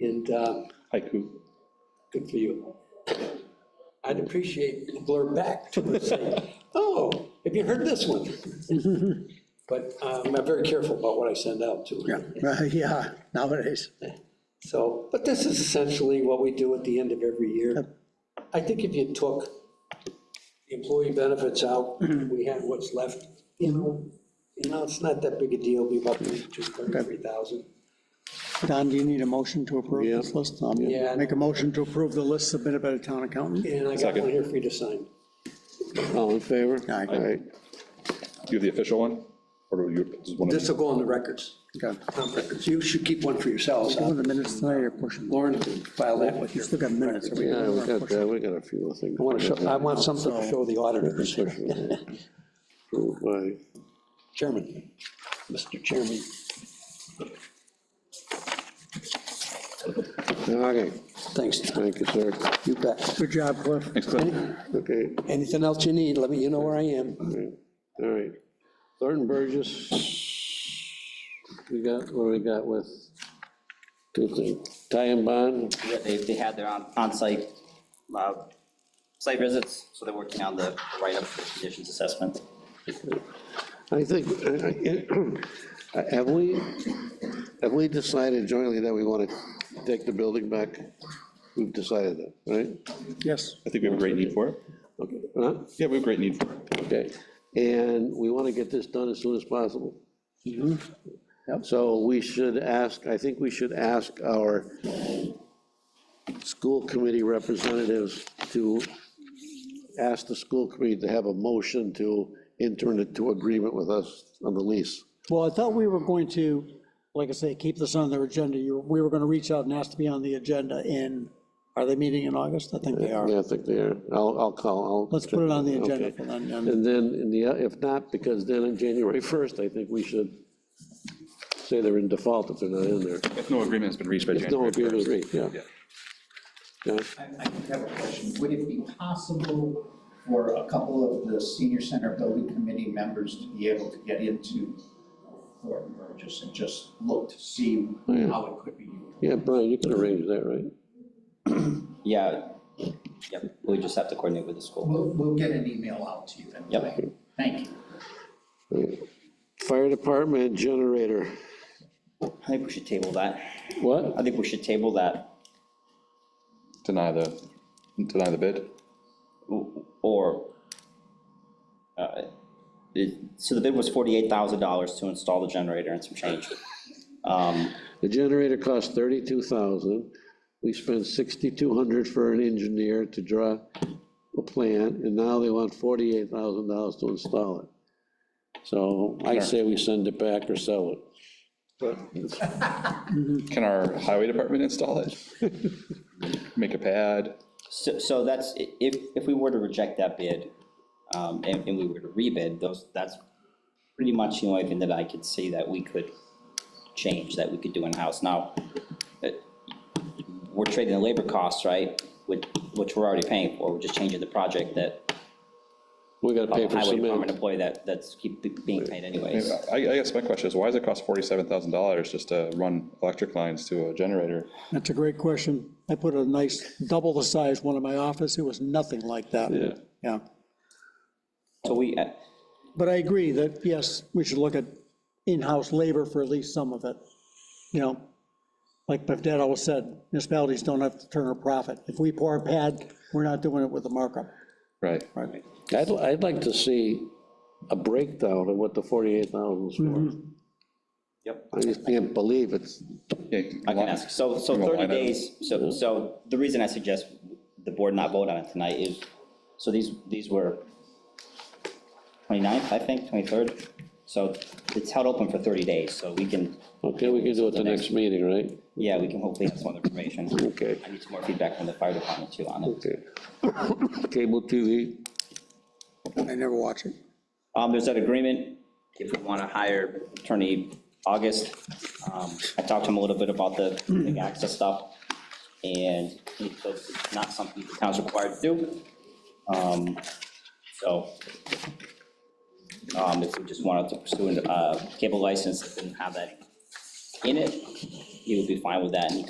And uh, haiku. good for you. I'd appreciate a blurb back to say, oh, have you heard this one? But um, I'm very careful about what I send out too. Yeah, uh, yeah, nowadays. So, but this is essentially what we do at the end of every year. I think if you took the employee benefits out, we had what's left, you know, you know, it's not that big a deal, be about thirty-two, thirty-three thousand. Don, do you need a motion to approve this list? Um, Yeah. Make a motion to approve the list submitted by the town accountant? And I got Second. one here for you to sign. All in favor? Aye. All right. Do you have the official one? Or do you, just one of This will go on the records, Okay. town records. You should keep one for yourselves. Go in the minutes tonight or pushing? Lauren, file that with You you. still got minutes. Are we- Yeah, we got that, we got a few things. I want to show, I want something to show the auditors. Approved by- Chairman, Mr. Chairman. Okay, Thanks, thank you, sir. you bet. Good job, Cliff. Thanks, Cliff. Okay, Anything else you need, let me, you know where I am. all right, all right. Thornton Burgess, we got, what we got with, two things, tie and bond, Yeah, they, they had their on onsite, uh, site visits, so they're working on the the write-up for the conditions assessment. I think, uh, uh, have we, have we decided jointly that we want to take the building back? We've decided that, right? Yes. I think we have a great need for it. Okay. Huh? Yeah, we have a great need for it. Okay, and we want to get this done as soon as possible. Mm-hmm. So we should ask, I think we should ask our school committee representatives to ask the school committee to have a motion to enter into agreement with us on the lease. Well, I thought we were going to, like I say, keep this on their agenda. You, we were gonna reach out and ask to be on the agenda in, are they meeting in August? I think they are. Yeah, I think they are. I'll, I'll call, I'll. Let's put it on the agenda Okay. for then, and And then, in the, if not, because then on January 1st, I think we should say they're in default if they're not in there. If no agreement has been reached by No January agreement 1st. agreed, yeah. Yeah. Yeah. I I do have a question. Would it be possible for a couple of the senior center building committee members to be able to get into Thornton Burgess and just look to see Yeah. how it could be used? Yeah, Brian, you can arrange that, right? Yeah, yep, we just have to coordinate with the school. We'll, we'll get an email out to you then. Yep. Thank you. Fire department generator, I think we should table that. I what? think we should table that, Deny the, deny the bid. o- or, uh, it- so the bid was forty-eight thousand dollars to install the generator and some change. Um, The generator cost thirty-two thousand. We spent sixty-two hundred for an engineer to draw a plan, and now they want forty-eight thousand dollars to install it. So I say we send it back or sell it. Can our highway department install it? Make a pad? So, so that's, i- if, if we were to reject that bid, um, and, and we were to rebid, those, that's pretty much the only thing that I could see that we could change, that we could do in-house. Now, uh, we're trading the labor costs, right, which, which we're already paying for, we're just changing the project that, We gotta of pay a for Oh, highway department cement. employee that, that's keep be- being paid anyways. I, I guess my question is, why does it cost forty-seven thousand dollars just to run electric lines to a generator? that's a great question. I put a nice, double the size one in my office. It was nothing like that. Yeah. Yeah. So we, uh, But I agree that, yes, we should look at in-house labor for at least some of it. You know, like my dad always said, municipalities don't have to turn a profit. If we pour a pad, we're not doing it with a markup. Right. Right. I'd, I'd like to see a breakdown of what the forty-eight thousand is for. Yep. I just can't believe it's, I I can ask, so, so You want thirty line item? days, so, so the reason I suggest the board not vote on it tonight is, so these, these were 29th, I think, twenty-third, so it's held open for thirty days, so we can, okay, we can do it the next meeting, right? yeah, we can hopefully have some other information. Okay. I need some more feedback from the fire department too on it. Okay. Cable TV, I never watch it. Um, there's that agreement, if we want to hire attorney August, um, I talked to him a little bit about the the access stuff, and he said it's not something the town's required to do. Um, So, um, if we just wanted to uh, pursue a cable license and have that in it, he would be fine with that, and he